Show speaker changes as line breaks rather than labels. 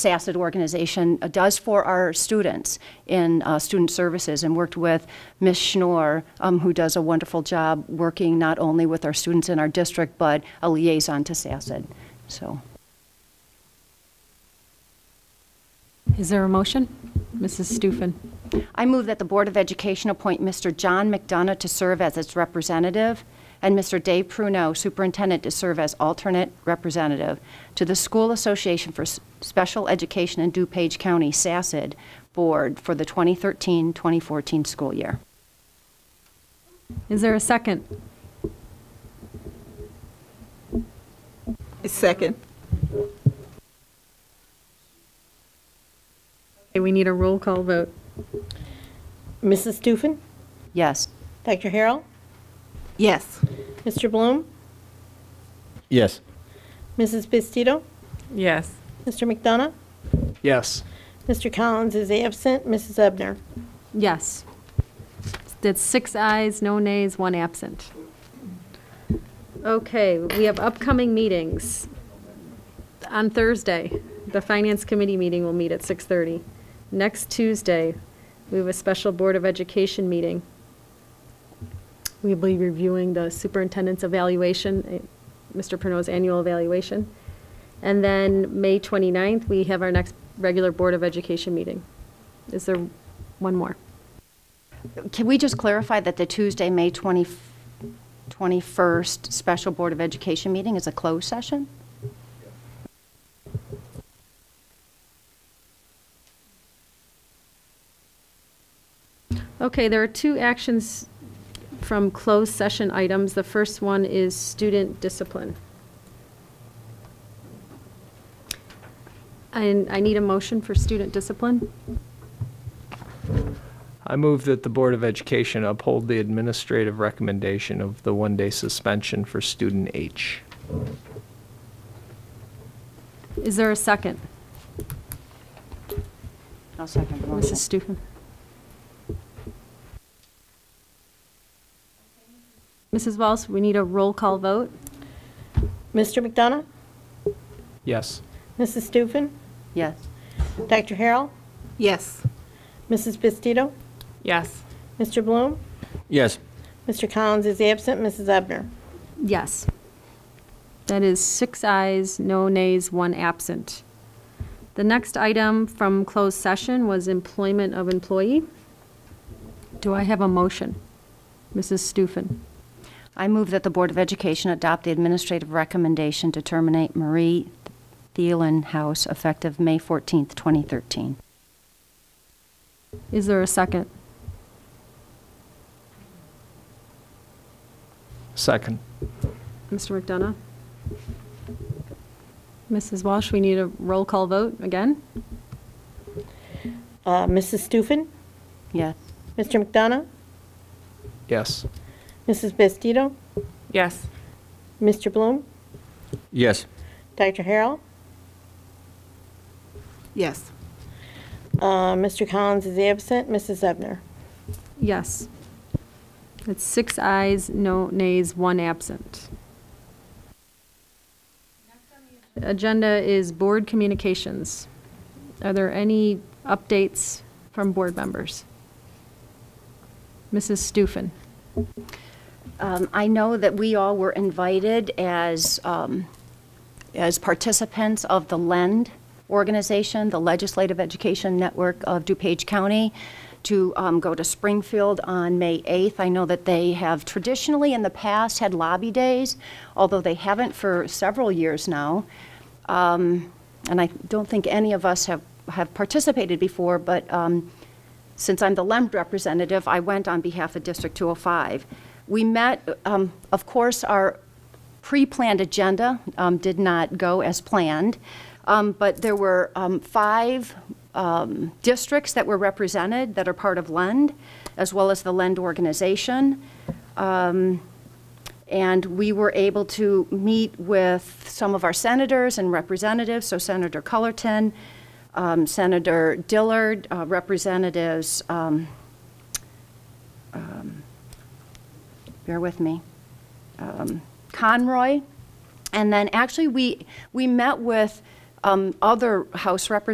SACID organization uh, does for our students in uh, student services and worked with Ms. Schnorr, um, who does a wonderful job working not only with our students in our district, but a liaison to SACID. So,
Is there a motion? Mrs. Stufen.
I move that the Board of Education appoint Mr. John McDonough to serve as its representative and Mr. Dave Pruno, superintendent, to serve as alternate representative to the School Association for S- Special Education in DuPage County, SACID, Board for the 2013-2014 school year.
Is there a second?
Second.
Okay, We need a roll call vote.
Mrs. Stufen?
Yes.
Dr. Harrell?
Yes.
Mr. Bloom?
Yes.
Mrs. Bastido?
Yes.
Mr. McDonough?
Yes.
Mr. Collins is absent. Mrs. Ebner?
Yes. That's six ayes, no nays, one absent. Okay, we have upcoming meetings. On Thursday, the Finance Committee meeting will meet at 6:30. Next Tuesday, we have a special Board of Education meeting. We'll be reviewing the superintendent's evaluation, eh, Mr. Pernod's annual evaluation. And then, May 29th, we have our next regular Board of Education meeting. Is there one more?
Can we just clarify that the Tuesday, May 20 21st Special Board of Education meeting is a closed session?
Okay, there are two actions from closed session items. The first one is student discipline. And I need a motion for student discipline.
I move that the Board of Education uphold the administrative recommendation of the one-day suspension for student H.
Is there a second?
I'll second the motion.
Mrs. Stufen. Mrs. Walsh, we need a roll call vote.
Mr. McDonough?
Yes.
Mrs. Stufen?
Yes.
Dr. Harrell?
Yes.
Mrs. Bastido?
Yes.
Mr. Bloom?
Yes.
Mr. Collins is absent. Mrs. Ebner?
Yes. That is six ayes, no nays, one absent. The next item from closed session was employment of employee. Do I have a motion? Mrs. Stufen.
I move that the Board of Education adopt the administrative recommendation to terminate Marie Thielen House effective May 14th, 2013.
Is there a second?
Second.
Mr. McDonough? Mrs. Walsh, we need a roll call vote again?
Uh, Mrs. Stufen?
Yes.
Mr. McDonough?
Yes.
Mrs. Bastido?
Yes.
Mr. Bloom?
Yes.
Dr. Harrell?
Yes.
Uh, Mr. Collins is absent. Mrs. Ebner?
Yes. It's six ayes, no nays, one absent. Agenda is board communications. Are there any updates from board members? Mrs. Stufen.
Um, I know that we all were invited as, um, as participants of the LEND organization, the Legislative Education Network of DuPage County, to um, go to Springfield on May 8th. I know that they have traditionally in the past had lobby days, although they haven't for several years now. Um, And I don't think any of us have, have participated before, but um, since I'm the LEMD representative, I went on behalf of District 205. We met, um, of course, our pre-planned agenda um, did not go as planned, um, but there were um, five um, districts that were represented that are part of LEND, as well as the LEND organization. Um, and we were able to meet with some of our senators and representatives, so Senator Cullerton, um, Senator Dillard, uh, Representatives, um, um, bear with me, um, Conroy, and then actually, we, we met with um, other House representatives